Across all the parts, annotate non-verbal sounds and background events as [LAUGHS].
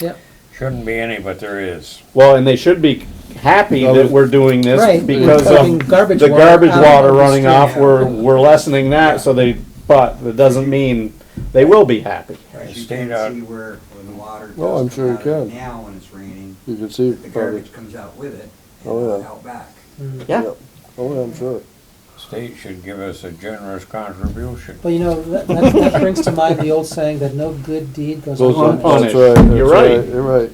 Yep. Shouldn't be any, but there is. Well, and they should be happy Well, that if- we're doing this Right, because we're taking of garbage the water garbage out of water the running street. off, we're, we're lessening that, so they, but that doesn't mean they will be happy. Right, you Stayed can out. see where, where the water does Oh, I'm sure come you out of it can. now when it's raining, You can the see it probably. garbage comes out with it Oh, and yeah. out back. Mm-hmm. Yeah, Oh, yeah, I'm sure. State should give us a generous contribution. Well, you know, that, that, that brings to mind the old saying that no good deed goes Goes unpunished. unpunished. That's right. that's You're right. You're right.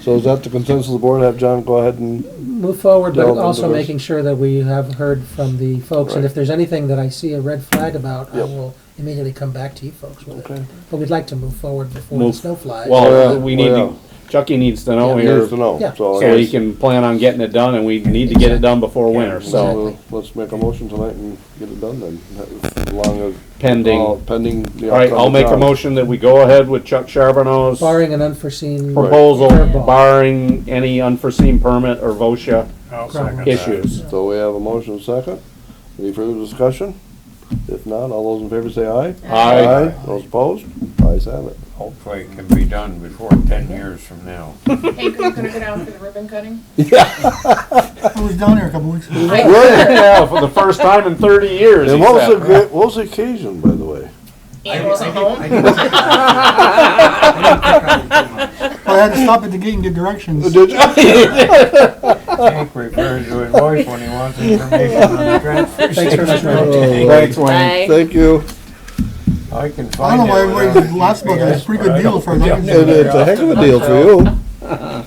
So is that the consensus of the board? Have John go ahead and, Move forward, but Delve into also this. making sure that we have heard from the folks, and Right. if there's anything that I see a red flag about, I Yep. will immediately come back to you folks with it. okay. But we'd like to move forward before the Move- snow flies. well, Yeah, we need to, well, Chucky needs to know Yeah. here, Needs to know. Yeah. So Oh, so I he guess can plan on getting it done, and we need to get it done before winter, so we'll- let's make a motion tonight and get it done then. As long as. all- pending. Pending the. All right, I'll outcome of make a John. motion that we go ahead with Chuck Charbonneau's Barring an unforeseen. proposal, Curveball. barring any unforeseen permit or VOSHA I'll second that. issues. So we have a motion second. Any further discussion? If not, all those in favor say aye. Aye. Those opposed? Ayes have it. Hopefully it can be done before ten years from now. Hey, are you gonna go down for the ribbon cutting? I was down there a couple weeks ago. Yeah, for the first time in thirty years. And he what was said. the, gra- what was the occasion, by [LAUGHS] the way? Ann wasn't home. I didn't think I would do much. I had to stop at the gate and get directions. Did you? Jake refers to his wife when he wants information on the transfer Thanks very much, Mary. station. Thanks, Wayne. Bye. Thank you. I can I find don't it. know why everybody did last book, it's a pretty good deal for a Yeah. lot of It- It's a heck of a deal for you. [LAUGHS]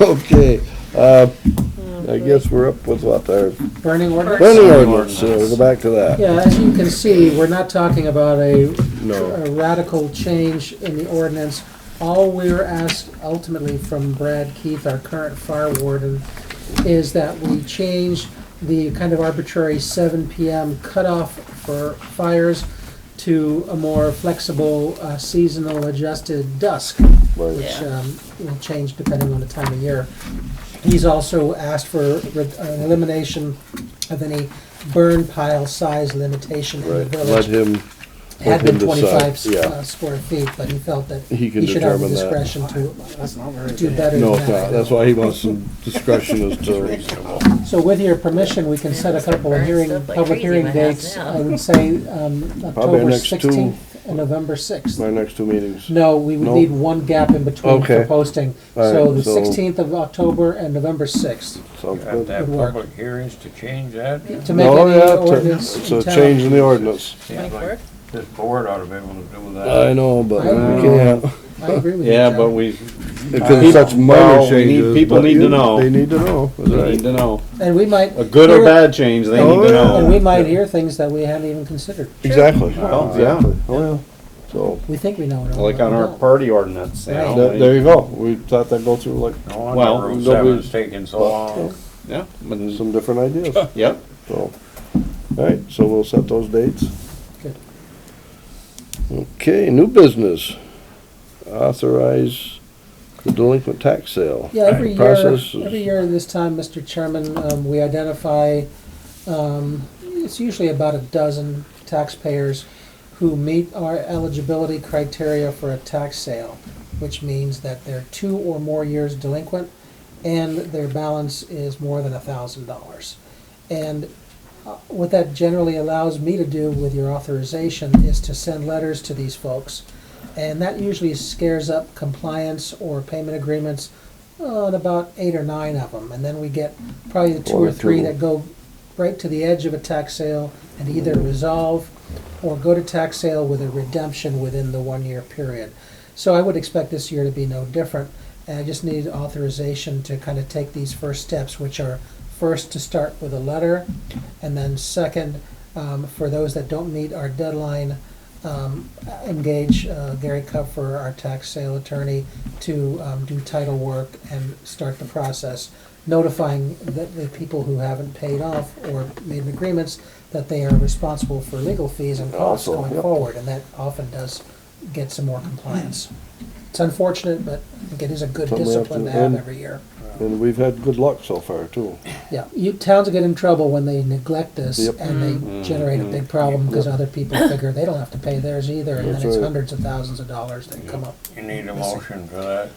Okay, uh, I guess we're up with what, our Burning order? planning ordinance, uh, we'll go back to that. Yeah, as you can see, we're not talking about a No, a radical change in the ordinance. All we're asked ultimately from Brad Keith, our current fire warden, is that we change the kind of arbitrary seven PM cutoff for fires to a more flexible uh, seasonal adjusted dusk right, which um, will change depending on the time of year. He's also asked for re- an elimination of any burn pile size limitation in the right, let village. him, It Had been let him decide, twenty-five s- yeah. uh, square feet, but he felt that He can he should have the determine that. discretion to do better no, than it's not, that's that. why he wants some discretion as to, So with your permission, we can set a it's gonna couple of burn hearing, stuff like public crazy in hearing my house dates. now. I would say um, October next two- sixteenth and November sixth. my next two meetings. No, we would No? need one gap in between for Okay. posting. All So right, the so- sixteenth of October and November sixth, Sounds Have good. to have public hearings to change that. to make No, any Oh, yeah, to- ordinance it's a in change town. in the ordinance. Seems like this board ought to be able to do I Uh, that. know, but I- we can't, I agree with you, Yeah, but John. we, it's been such minor Well, we need- changes, people but need to you- know. They need to know, that's we right. need to know. And we might. A good or hear- bad change, they Oh, need to yeah. And we know. might hear things that we haven't even considered. Exactly, Well, yeah. exactly, oh, yeah, so, We think we know it all. Like on our party ordinance, you Right. there, know. there you go, we thought that'd go through like No Well, wonder Route no, we- seven's taking so long. Yeah, but- some different ideas. yep. So, all right, so we'll set those dates. Good. Okay, new business. Authorize the delinquent tax sale. Yeah, every year, Process is- every year this time, Mr. Chairman, um, we identify, um, it's usually about a dozen taxpayers who meet our eligibility criteria for a tax sale, which means that they're two or more years delinquent and their balance is more than a thousand dollars. And uh, what that generally allows me to do with your authorization is to send letters to these folks. And that usually scares up compliance or payment agreements on about eight or nine of them. And then we get probably the two One or or three two. that go right to the edge of a tax sale and either resolve or go to tax sale with a redemption within the one-year period. So I would expect this year to be no different. And I just need authorization to kind of take these first steps, which are first to start with a letter, and then second, um, for those that don't meet our deadline, um, engage uh, Gary Kupfer, our tax sale attorney, to um, do title work and start the process, notifying the, the people who haven't paid off or made agreements that they are responsible for legal fees and costs Also, going yep. forward, and that often does get some more compliance. It's unfortunate, but I think it is a good Something we have discipline to to have end. every year. And we've had good luck so far too. Yeah, you, towns get in trouble when they neglect this Yep. Mm-hmm. and they generate a big problem because other people figure they don't have to pay theirs either, and then That's it's right. hundreds of thousands of dollars that come up. You need a motion for that.